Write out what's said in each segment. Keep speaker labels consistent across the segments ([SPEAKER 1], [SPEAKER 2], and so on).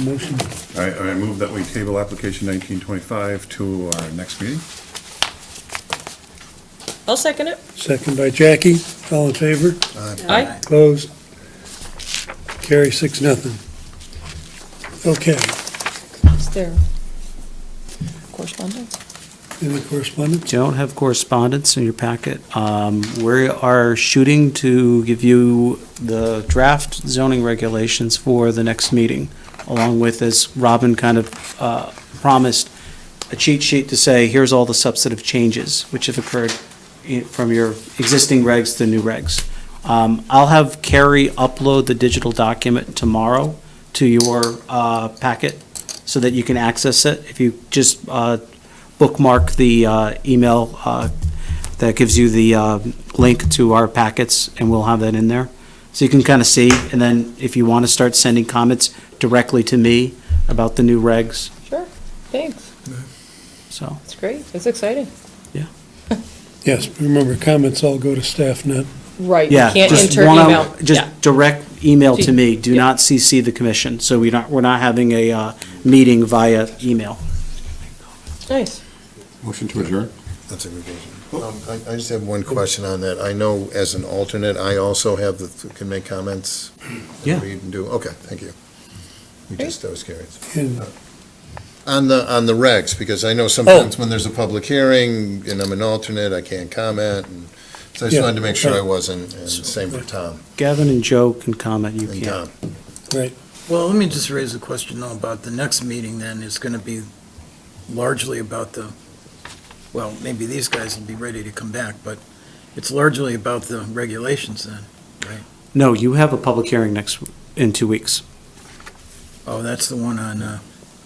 [SPEAKER 1] Motion,
[SPEAKER 2] All right, I move that we table application nineteen twenty-five to our next meeting.
[SPEAKER 3] I'll second it.
[SPEAKER 1] second by Jackie, all in favor?
[SPEAKER 3] Aye.
[SPEAKER 1] Closed. Carry six, nothing. Okay,
[SPEAKER 3] Is there correspondence?
[SPEAKER 1] any correspondence?
[SPEAKER 4] don't have correspondence in your packet. Um, We are shooting to give you the draft zoning regulations for the next meeting, along with, as Robin kind of uh, promised, a cheat sheet to say, here's all the substantive changes which have occurred i- from your existing regs to new regs. Um, I'll have Carrie upload the digital document tomorrow to your uh, packet so that you can access it. If you just uh, bookmark the uh, email uh, that gives you the uh, link to our packets, and we'll have that in there. So you can kind of see, and then if you want to start sending comments directly to me about the new regs,
[SPEAKER 3] Sure, thanks.
[SPEAKER 4] so,
[SPEAKER 3] It's great. It's exciting.
[SPEAKER 1] Yes, remember, comments all go to staff, not,
[SPEAKER 3] Right, you
[SPEAKER 4] yeah.
[SPEAKER 3] can't
[SPEAKER 4] just
[SPEAKER 3] enter
[SPEAKER 4] wanna-
[SPEAKER 3] email. Yeah.
[SPEAKER 4] Just direct email to me, do
[SPEAKER 3] Yeah.
[SPEAKER 4] not CC the commission, so we're not, we're not having a uh, meeting via email.
[SPEAKER 3] Nice.
[SPEAKER 2] Motion to adjourn?
[SPEAKER 5] That's a good question. Um, I, I just have one question on that. I know as an alternate, I also have the, can make comments.
[SPEAKER 4] Yeah.
[SPEAKER 5] Read and do, okay, thank you. We just, I was curious.
[SPEAKER 1] and
[SPEAKER 5] On the, on the regs, because I know sometimes when there's a public hearing and I'm an alternate, I can't comment. and So I
[SPEAKER 1] Yeah,
[SPEAKER 5] just wanted to make sure I
[SPEAKER 1] right.
[SPEAKER 5] wasn't, and same for Tom
[SPEAKER 4] Gavin and Joe can comment, you
[SPEAKER 5] and uh,
[SPEAKER 4] can't.
[SPEAKER 5] Tom.
[SPEAKER 6] Well, let me just raise a question though about the next meeting then. It's going to be largely about the, well, maybe these guys will be ready to come back, but it's largely about the regulations then.
[SPEAKER 4] No, you have a public hearing next, in two weeks.
[SPEAKER 6] Oh, that's the one on, uh,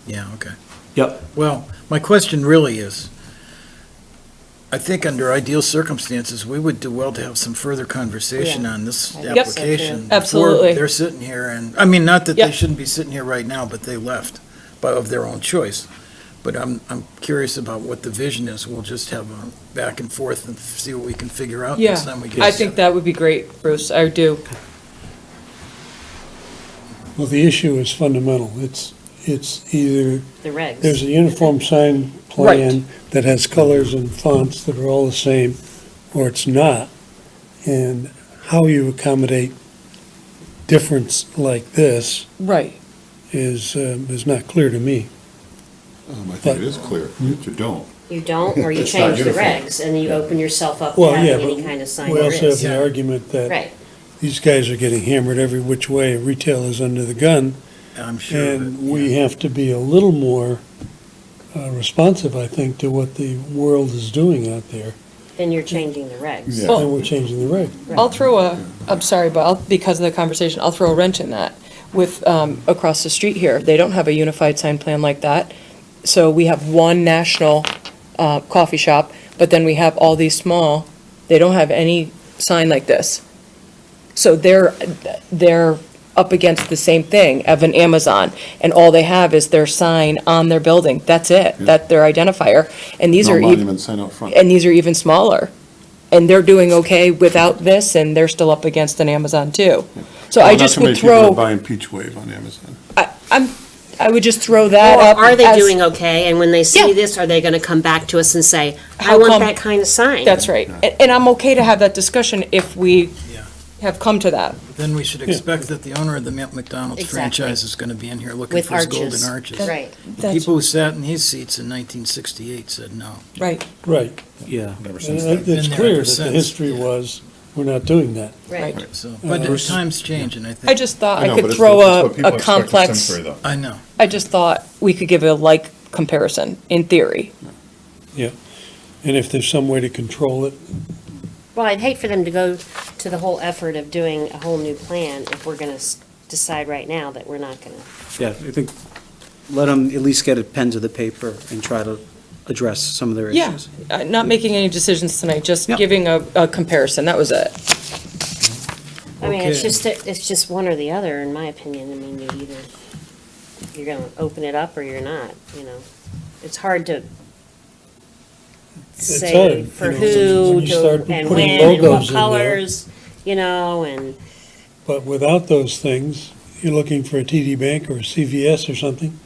[SPEAKER 6] yeah, okay.
[SPEAKER 4] Yep.
[SPEAKER 6] Well, my question really is, I think under ideal circumstances, we would do well to have some further conversation on this
[SPEAKER 3] I think so, too.
[SPEAKER 6] application. before
[SPEAKER 3] Absolutely.
[SPEAKER 6] They're sitting here and, I mean, not that they
[SPEAKER 3] Yep.
[SPEAKER 6] shouldn't be sitting here right now, but they left, but of their own choice. But I'm, I'm curious about what the vision is. We'll just have a back and forth and see what we can figure out
[SPEAKER 3] Yeah,
[SPEAKER 6] next time we get.
[SPEAKER 3] I think that would be great, Bruce. I do.
[SPEAKER 1] Well, the issue is fundamental. It's, it's either,
[SPEAKER 7] The
[SPEAKER 1] there's
[SPEAKER 7] regs.
[SPEAKER 1] a uniform sign plan that has colors and fonts that are all the same, or it's not. And how you accommodate difference like this
[SPEAKER 3] Right.
[SPEAKER 1] is, um, is not clear to me.
[SPEAKER 2] Um, I
[SPEAKER 1] think it
[SPEAKER 2] is clear, that you don't.
[SPEAKER 7] You don't, or you
[SPEAKER 2] It's not
[SPEAKER 7] change the
[SPEAKER 2] uniform.
[SPEAKER 7] regs, and then you open yourself up to
[SPEAKER 1] Well, yeah,
[SPEAKER 7] having
[SPEAKER 1] but
[SPEAKER 7] any kind of sign
[SPEAKER 1] we
[SPEAKER 7] there
[SPEAKER 1] also have
[SPEAKER 7] is.
[SPEAKER 1] the argument that
[SPEAKER 7] Right,
[SPEAKER 1] these guys are getting hammered every which way, retail is under the gun,
[SPEAKER 6] I'm sure. of it,
[SPEAKER 1] and we
[SPEAKER 6] yeah.
[SPEAKER 1] have to be a little more uh, responsive, I think, to what the world is doing out there,
[SPEAKER 7] then you're changing the regs.
[SPEAKER 2] Yeah.
[SPEAKER 1] and we're changing the regs.
[SPEAKER 3] I'll throw a, I'm sorry, but I'll, because of the conversation, I'll throw a wrench in that with, um, across the street here. They don't have a unified sign plan like that. So we have one national, uh, coffee shop, but then we have all these small, they don't have any sign like this. So they're, they're up against the same thing of an Amazon, and all they have is their sign on their building. That's it.
[SPEAKER 2] Yeah.
[SPEAKER 3] That's their identifier. And these are.
[SPEAKER 2] No
[SPEAKER 3] ev-
[SPEAKER 2] monument sign out front.
[SPEAKER 3] and these are even smaller. And they're doing okay without this, and they're still up against an Amazon too. So I
[SPEAKER 2] Well, Oh, not
[SPEAKER 3] just
[SPEAKER 2] too many
[SPEAKER 3] would
[SPEAKER 2] people are
[SPEAKER 3] throw,
[SPEAKER 2] Buying Peach Wave on Amazon.
[SPEAKER 3] I, I'm, I would just throw that
[SPEAKER 7] Or
[SPEAKER 3] up.
[SPEAKER 7] are they
[SPEAKER 3] as-
[SPEAKER 7] doing okay, and when they
[SPEAKER 3] Yeah.
[SPEAKER 7] see this, are they gonna come back to us and say, I
[SPEAKER 3] How come-
[SPEAKER 7] want that kind of sign?
[SPEAKER 3] That's right. And, and I'm okay to have that discussion if we
[SPEAKER 6] Yeah.
[SPEAKER 3] have come to that.
[SPEAKER 6] Then we should expect that the owner of the McDonald's
[SPEAKER 7] Exactly.
[SPEAKER 6] franchise is going to be in here looking
[SPEAKER 7] With
[SPEAKER 6] for his golden
[SPEAKER 7] arches.
[SPEAKER 6] arches.
[SPEAKER 7] Right.
[SPEAKER 6] The
[SPEAKER 3] That's
[SPEAKER 6] People who sat in these seats in 1968 said no.
[SPEAKER 3] Right,
[SPEAKER 1] Right,
[SPEAKER 4] Yeah.
[SPEAKER 2] Never
[SPEAKER 1] and
[SPEAKER 2] since
[SPEAKER 1] it-
[SPEAKER 2] then.
[SPEAKER 1] it's
[SPEAKER 6] Been there
[SPEAKER 1] clear
[SPEAKER 6] ever
[SPEAKER 1] that the
[SPEAKER 6] since.
[SPEAKER 1] history was, we're not doing that.
[SPEAKER 3] right.
[SPEAKER 6] So, but
[SPEAKER 1] Bruce-
[SPEAKER 6] times change, and I think
[SPEAKER 3] I just thought I
[SPEAKER 2] know, but
[SPEAKER 3] could
[SPEAKER 2] it's-
[SPEAKER 3] throw
[SPEAKER 2] it's
[SPEAKER 3] a,
[SPEAKER 2] what people
[SPEAKER 3] Uh, a
[SPEAKER 2] expect of
[SPEAKER 3] complex,
[SPEAKER 2] Simsbury, though.
[SPEAKER 6] I know.
[SPEAKER 3] I just thought we could give a like comparison, in theory.
[SPEAKER 1] And if there's some way to control it,
[SPEAKER 7] Well, I'd hate for them to go to the whole effort of doing a whole new plan if we're gonna s- decide right now that we're not gonna.
[SPEAKER 4] Yeah, I think, let them at least get a pen to the paper and try to address some of their
[SPEAKER 3] Yeah.
[SPEAKER 4] issues.
[SPEAKER 3] Uh, Not making any decisions tonight, just
[SPEAKER 4] Yeah.
[SPEAKER 3] giving a, a comparison, that was it.
[SPEAKER 7] I mean, it's
[SPEAKER 6] Okay.
[SPEAKER 7] just, that- it's just one or the other, in my opinion. I mean, you either, you're gonna open it up or you're not, you know? It's hard to
[SPEAKER 1] It's hard,
[SPEAKER 7] say
[SPEAKER 1] you
[SPEAKER 7] for
[SPEAKER 1] know, when
[SPEAKER 7] who
[SPEAKER 1] you start
[SPEAKER 7] to- and
[SPEAKER 1] putting
[SPEAKER 7] when and
[SPEAKER 1] logos
[SPEAKER 7] what
[SPEAKER 1] in there.
[SPEAKER 7] colors, you know, and
[SPEAKER 1] but without those things, you're looking for a TD Bank or a CVS or something,